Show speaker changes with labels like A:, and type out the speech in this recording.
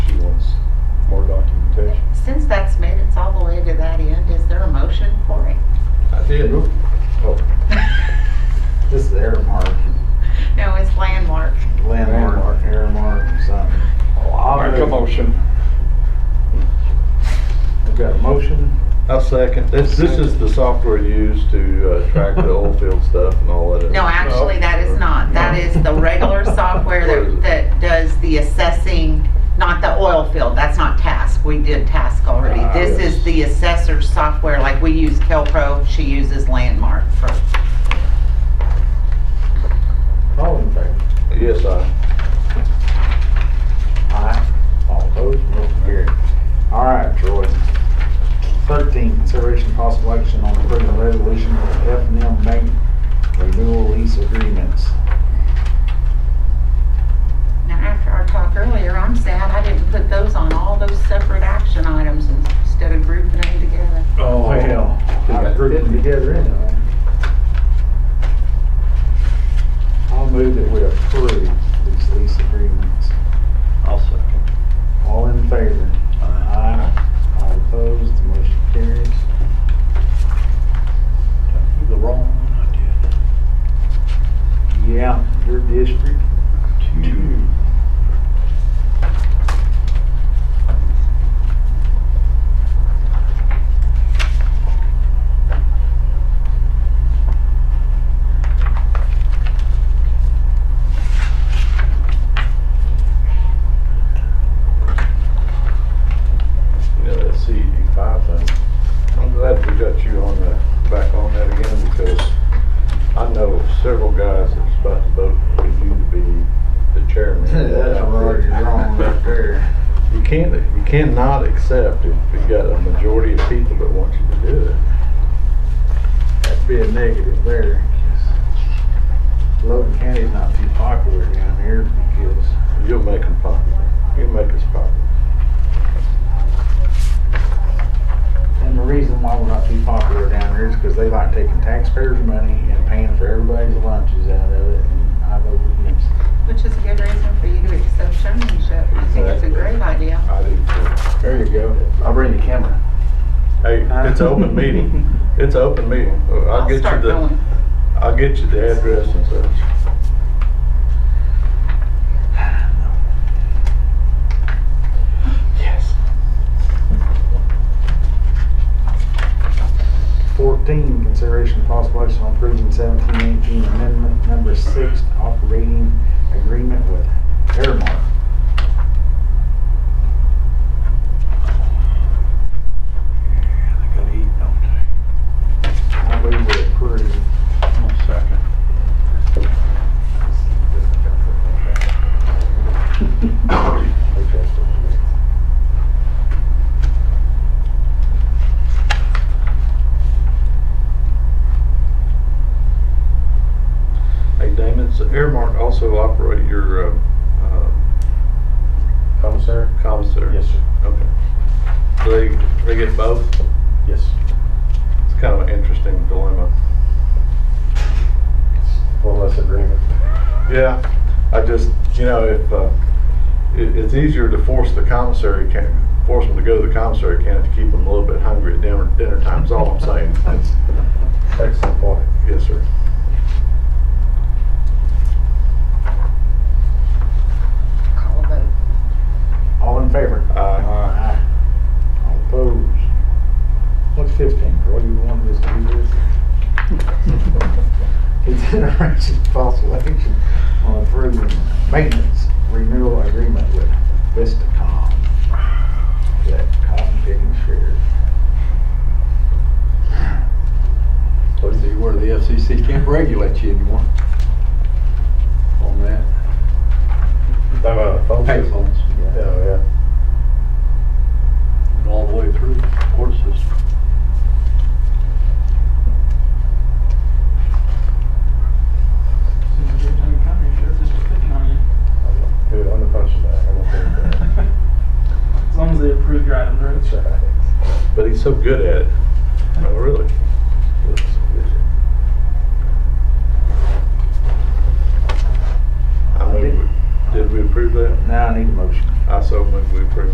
A: motion.
B: I've got a motion.
C: I'll second. This, this is the software used to uh, track the oil field stuff and all that.
D: No, actually, that is not. That is the regular software that, that does the assessing, not the oil field. That's not task. We did task already. This is the assessor software, like we use Kelpro, she uses Landmark for,
B: All in favor?
C: Yes, I.
B: Aye. All opposed, motion carried. All right, Troy. Thirteen, consideration of possible action on approving a resolution with F and M Bank renewal lease agreements.
D: now after our talk earlier, I'm sad I didn't put those on, all those separate action items instead of grouping them together.
B: Oh. Well, I grouped them together anyway. I'll move that we approve these lease agreements.
C: I'll second.
B: All in favor? Aye. All opposed, the motion carries.
E: The wrong one I did.
B: Yeah, your district.
E: Two.
C: Yeah, that CED five thing. I'm glad we got you on the, back on that again because I know several guys that's about to vote for you to be the chairman. of that
B: That's already wrong right there.
C: You can't, you cannot accept if you got a majority of people that want you to do it.
B: That'd be a negative there. Logan County's not too popular down here because
C: You'll make them popular. You'll make us popular.
B: And the reason why we're not too popular down here is because they like taking taxpayers' money and paying for everybody's lunches out of it, and I vote against it.
D: Which is a good reason for you to accept chairmanship. I think it's a great idea.
C: I do too.
B: There you go. I'll bring the camera.
C: Hey, it's an open meeting. It's an open meeting. I'll get you
D: start going.
C: the, I'll get you the address and such.
B: Yes. Fourteen, consideration of possible action on approving seventeen eighteen amendment number six operating agreement with Airmark.
E: Yeah, they gotta eat, don't they?
B: I believe we approve.
E: One second.
C: Hey, Damon, does Airmark also operate your, uh, uh,
F: Commissary?
C: commissary?
F: Yes, sir.
C: Okay. Do they, they get both?
F: Yes.
C: It's kind of an interesting dilemma.
F: One less agreement.
C: Yeah, I just, you know, if, uh, it, it's easier to force the commissary can, force them to go to the commissary can if you keep them a little bit hungry at dinner, dinner time's all I'm saying. That's-
F: Excellent point.
C: Yes, sir.
D: Call a vote.
B: All in favor?
C: Aye.
B: Aye. All opposed? What's fifteen, Troy, you wanted us to do this? Consideration of possible action on approving maintenance renewal agreement with Vistacom. That cotton picking share.
E: Let's see where the FCC can't regulate you anymore. On that.
F: Talking about a phone system?
E: Payphones.
F: Yeah, yeah.
E: And all the way through the court system.
G: Every time you come, your sheriff is just picking on you.
F: Dude, I'm the punching bag. I'm okay with that.
G: As long as they approve your item, right?
F: That's right.
C: But he's so good at it. Oh, really? I move, we- did we approve that?
B: Now I need a motion.
C: I so move we approve.